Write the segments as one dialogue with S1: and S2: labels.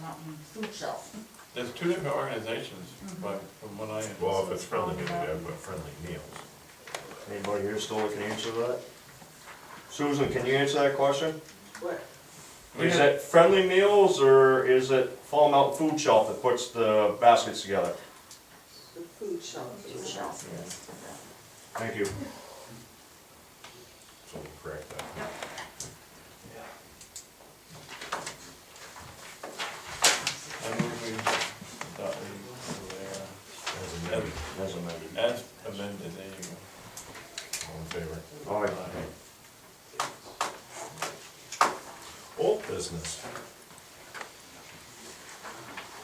S1: Mountain Food Shelf.
S2: There's two different organizations,
S3: Mm-hmm.
S2: but from what I,
S4: Well, if it's friendly, maybe they have uh, friendly meals.
S5: Anybody here still can answer that? Susan, can you answer that question?
S6: What?
S5: Is it Friendly Meals or is it Fall Mountain Food Shelf that puts the baskets together?
S6: The food shop.
S1: Food Shelf, yes.
S5: Thank you.
S4: So we'll correct that.
S2: I move we thought we,
S4: As
S2: were there.
S4: amended,
S5: As amended.
S2: as amended, there you go.
S4: all in favor.
S5: All right.
S4: Old business.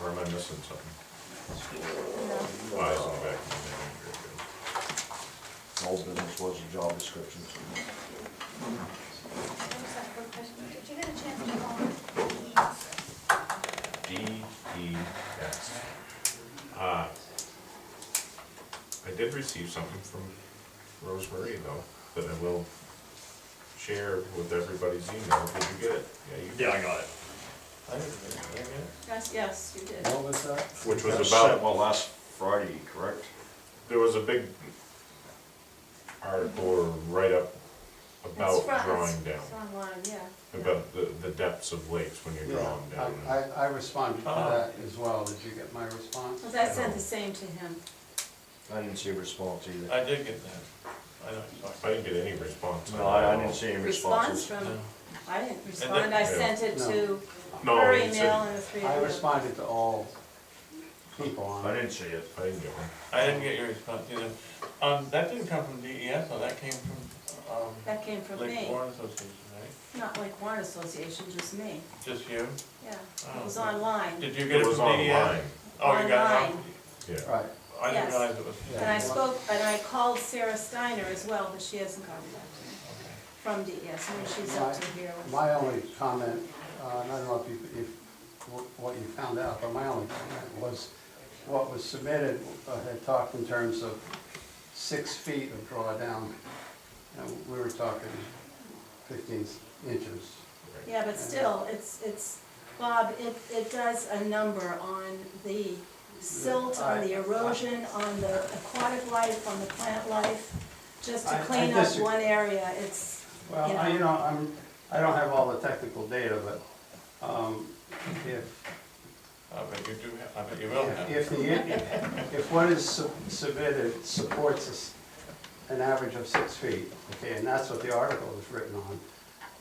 S4: Or am I missing something? Why is it back in
S5: Old business was the job description.
S7: I'm sorry, one question. Did you get a chance to go on the
S4: the memory? D E S. Uh, I did receive something from Rosemary though, that I will share with everybody's email. Did you get it? Yeah, you
S8: Yeah, I got it.
S2: I didn't get it.
S3: Yes, yes, you did.
S5: was that?
S4: Which was
S5: That was
S4: about-
S5: sent, well, last Friday, correct?
S4: There was a big article or write-up about
S3: It's fro- it's-
S4: drawing down,
S3: It's online, yeah.
S4: about the, the depths of lakes when you're
S9: Yeah,
S4: drawing
S9: I-
S4: down.
S9: I, I responded to
S2: Oh.
S9: that as well. Did you get my response?
S3: Well, I sent the same to him.
S5: I didn't see a response either.
S2: I did get that. I know, it's
S4: I
S2: like,
S4: didn't get any response. on
S5: No, I I
S4: that.
S5: didn't see any
S3: Response
S5: responses.
S3: from,
S2: no.
S3: I didn't respond, I
S4: Yeah.
S3: sent it to
S4: No,
S3: her
S4: it's a-
S3: email and the three
S9: I
S3: of them.
S9: responded to all people
S5: I
S9: on it.
S5: didn't see it.
S4: I didn't get one.
S2: I didn't get your response either. Um, that didn't come from DES, though, that came from,
S3: That came
S2: um,
S3: from
S2: Lake
S3: me,
S2: Warren Association, right?
S3: not like Warren Association, just me,
S2: Just you?
S3: yeah.
S2: Oh,
S3: It was
S2: okay.
S3: online,
S2: Did you get
S4: It
S2: it
S4: was
S2: from E DES?
S4: online,
S2: Oh, you got it?
S3: Online.
S4: yeah.
S9: Right,
S2: I didn't
S3: Yes.
S2: realize it was,
S9: Yeah.
S3: and I spoke, and I called Sarah Steiner as well, but she hasn't gotten back
S2: okay.
S3: to me, from DES, and she's up to here. with-
S9: my only comment, uh, and I don't know if you, if, wh- what you found out, but my only comment was what was submitted uh, had talked in terms of six feet of drawdown. And we were talking fifteen inches.
S3: Yeah, but still, it's, it's, Bob, it, it does a number on the silt, on the erosion, on the aquatic life, on the plant life, just to
S9: I- I
S3: clean up
S9: disagree.
S3: one area, it's,
S9: Well, I- you know, I'm, I don't have all the technical data, but, um, if,
S2: I bet you do have, I bet you will have.
S9: If the, if what is sub- submitted supports us an average of six feet, okay, and that's what the article is written on,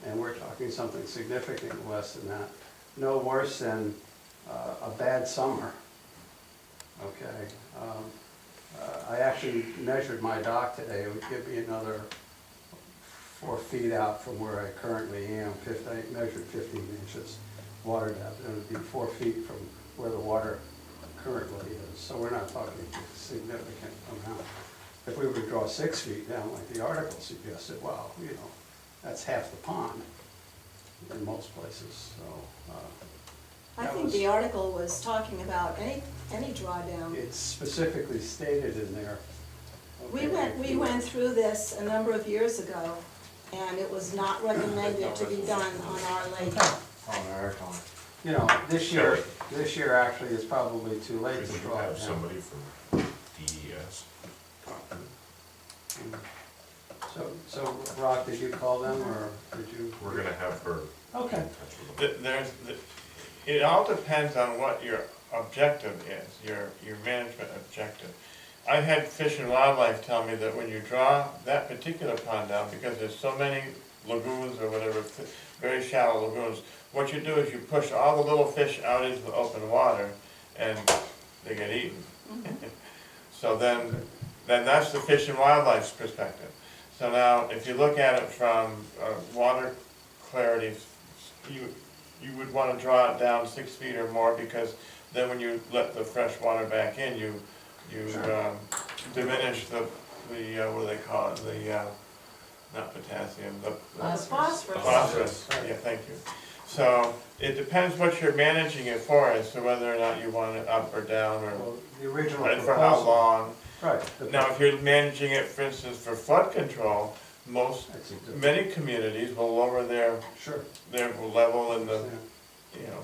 S9: and we're talking something significantly less than that, no worse than uh, a bad summer, okay? Um, uh, I actually measured my dock today, it would give me another four feet out from where I currently am, fif- I measured fifteen inches water depth, and it would be four feet from where the water currently is, so we're not talking significant amount. If we were to draw six feet down like the article suggested, well, you know, that's half the pond in most places, so, uh,
S6: I
S9: That
S6: think
S9: was-
S6: the article was talking about any, any drawdown.
S9: it's specifically stated in there.
S6: We went, we went through this a number of years ago, and it was not recommended to be done on our lake.
S5: On our time.
S9: You know, this year, this year actually is probably too
S4: We
S9: late to
S4: should
S9: draw
S4: have
S9: it down.
S4: somebody from E DES.
S9: So, so Rock, did you call them, or did you?
S4: We're gonna have her
S9: Okay.
S4: touch with them.
S2: Th- There's, th- it all depends on what your objective is, your, your management objective. I've had Fish and Wildlife tell me that when you draw that particular pond down, because there's so many lagoons or whatever, fi- very shallow lagoons, what you do is you push all the little fish out into the open water and they get eaten. So then, then that's the Fish and Wildlife's perspective. So now, if you look at it from uh, water clarity, you, you would want to draw it down six feet or more because then when you let the fresh water back in, you, you um, diminish the, the, uh, what do they call it, the, uh, not potassium, the.
S3: Uh, phosphorus.
S2: Phosphorus, yeah, thank you. So it depends what you're managing it for as to whether or not you want it up or down or,
S9: Well, The original
S2: and
S9: proposal.
S2: for how long.
S9: Right. the-
S2: Now, if you're managing it, for instance, for flood control, most,
S9: That's a different-
S2: many communities will lower their,
S9: Sure.
S2: their level in the,
S9: yeah.
S2: you know,